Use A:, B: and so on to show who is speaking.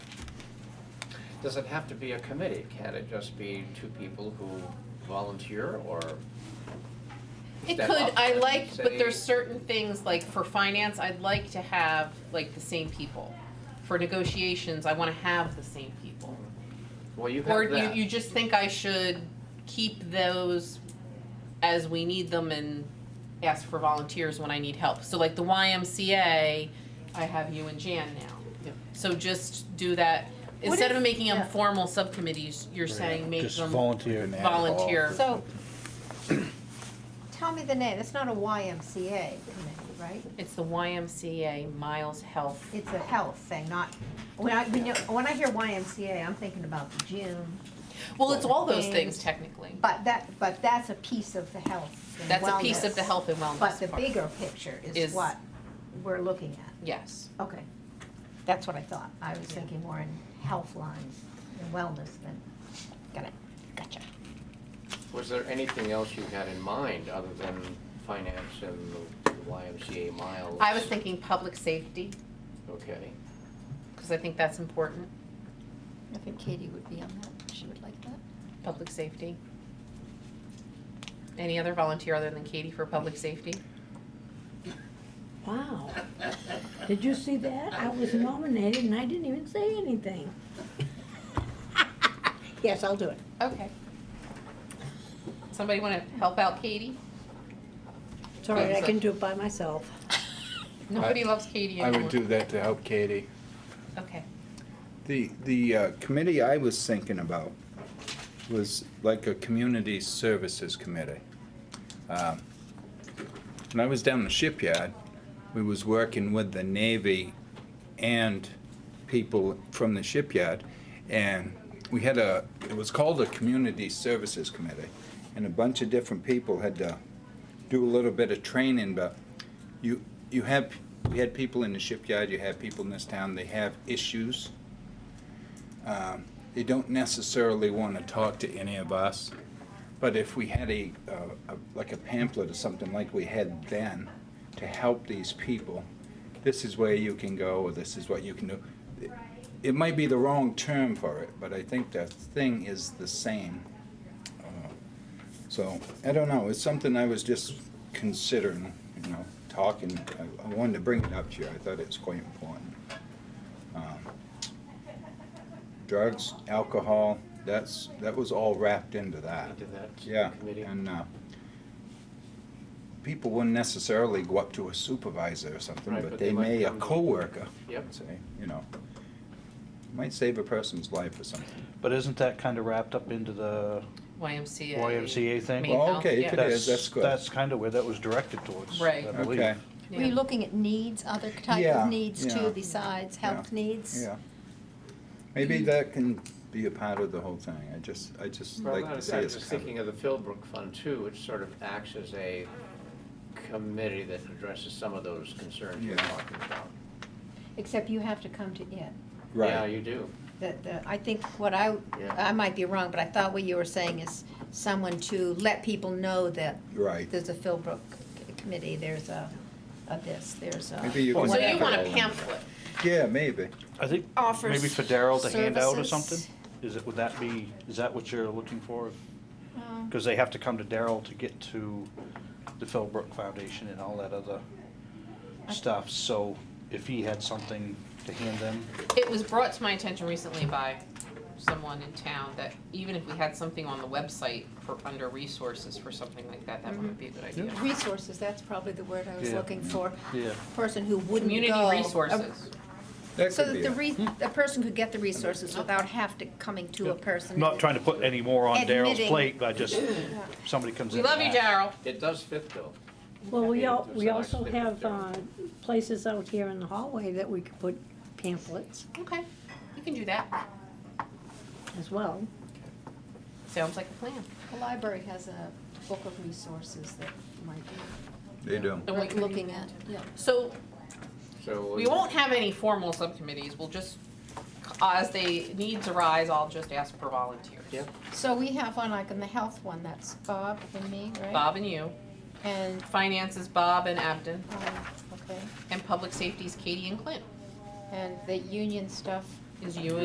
A: Does it have to be a committee? Can it just be two people who volunteer or?
B: It
A: step
B: could,
A: up
B: I
A: and
B: like, but
A: say-
B: there's certain things, like for finance, I'd like to have like the same people. For negotiations, I wanna have the same people.
A: Well, you
B: Or
A: have
B: you,
A: that.
B: you just think I should keep those as we need them and ask for volunteers when I need help. So like the YMCA, I have you and Jan now.
A: Yep.
B: So just do that,
C: What
B: instead
C: if-
B: of making them
C: yeah.
B: formal subcommittees, you're saying make
D: Just
B: them,
D: volunteer and add it all.
B: volunteer.
C: So, tell me the name, it's not a YMCA committee, right?
B: it's the YMCA Miles Health.
C: It's a health thing, not, when I, when you- when I hear YMCA, I'm thinking about the gym,
B: Well, it's all those things
C: Things.
B: technically.
C: but that, but that's a piece of the health and
B: That's a piece of the
C: wellness.
B: health and wellness
C: But the
B: part.
C: bigger picture
B: Is-
C: is what we're looking at.
B: Yes.
C: Okay, that's what I thought. I was
B: Yeah.
C: thinking more in health lines and wellness than, got it, gotcha.
A: Was there anything else you had in mind other than finance and the YMCA miles?
B: I was thinking public safety,
A: Okay.
B: because I think that's important,
C: I think Katie would be on that, she would like that.
B: public safety. Any other volunteer other than Katie for public safety?
E: Wow. Did you see that? I was nominated and I didn't even say anything.
C: Yes, I'll do it.
B: Okay. Somebody want to help out Katie?
E: It's all right, I can do it by myself.
B: Nobody loves Katie
F: I
B: anymore.
F: would do that to help Katie.
B: Okay.
F: The, the uh, committee I was thinking about was like a community services committee. Um, When I was down in the shipyard, we was working with the Navy and people from the shipyard, and we had a, it was called a community services committee, and a bunch of different people had to do a little bit of training, but you, you have, we had people in the shipyard, you have people in this town, they have issues um, they don't necessarily want to talk to any of us. But if we had a, uh, a- like a pamphlet or something like we had then to help these people, this is where you can go, or this is what you can do. It- It might be the wrong term for it, but I think the thing is the same. Uh, So, I don't know, it's something I was just considering, you know, talking. I- I wanted to bring it up to you, I thought it's quite important. Um, drugs, alcohol, that's, that was all wrapped into that.
A: Into that
F: Uh, Yeah,
A: committee.
F: and, uh, people wouldn't necessarily go up to a supervisor or something,
A: Right,
F: but
A: but
F: they
A: they might
F: may, a
A: come to-
F: coworker,
A: Yep.
F: say, you know, might save a person's life or something.
D: But isn't that kind of wrapped up into the,
B: YMCA.
D: YMCA thing?
B: Main
F: Well,
B: health,
F: okay,
B: yeah.
F: It is, that's good.
D: that's kind of where that was directed towards,
B: Right.
D: I believe.
F: Okay,
C: Were you
B: Yeah.
C: looking at needs, other type
F: Yeah,
C: of needs
F: yeah.
C: too, besides health needs?
F: yeah. Maybe that can be a part of the whole thing, I just, I just
A: Well,
F: like
A: I
F: to
A: was
F: see
A: I
F: us
A: was just
F: covered.
A: thinking of the Philbrook Fund too, which sort of acts as a committee that addresses some of those concerns you're
F: Yeah.
A: talking about.
C: Except you have to come to it.
A: Yeah,
F: Right,
A: you do.
C: The, the, I think what I,
A: Yeah.
C: I might be wrong, but I thought what you were saying is someone to let people know that
F: right.
C: there's a Philbrook committee, there's a, a this, there's a.
F: Maybe you can
B: So you
F: whatever.
B: want a pamphlet.
F: Yeah, maybe.
D: I think
C: Offers
D: maybe for Daryl to hand out or
C: services.
D: something? Is it, would that be, is that what you're looking for?
C: Um,
D: Because they have to come to Daryl to get to the Philbrook Foundation and all that other stuff. So if he had something to hand them,
B: It was brought to my attention recently by someone in town that even if we had something on the website for under resources for something like that, that wouldn't be a good idea.
C: Resources, that's probably the word I was
D: Yeah.
C: looking for.
D: yeah.
C: Person who wouldn't go.
B: Community
C: a-
B: resources.
F: That
C: So
F: could
C: that
F: be
C: the
F: it.
C: re, a person could get the resources without have to coming to a person.
D: Not trying to put any more on Daryl's
C: Admitting.
D: plate, but just, somebody comes in.
B: We love you,
D: and asks.
B: Daryl.
A: It does fit though.
E: Well, we
A: Yeah,
E: al-
A: there's
E: we
A: a nice
E: also
A: bit of
E: have, uh,
A: difference.
E: places out here in the hallway that we could put pamphlets
B: Okay, you can do that.
E: as well.
B: Sounds like a plan.
C: The library has a book of resources that might be
F: They do.
B: And we can-
C: looking at, yeah.
B: So
A: So.
B: we won't have any formal subcommittees. We'll just, as they needs arise, I'll just ask for volunteers.
A: Yep.
C: So we have one, like in the health one, that's Bob and me, right?
B: Bob and you.
C: And,
B: Finance is Bob and Abden.
C: um, okay,
B: And public safety is Katie and Clint.
C: and the union stuff
B: Is you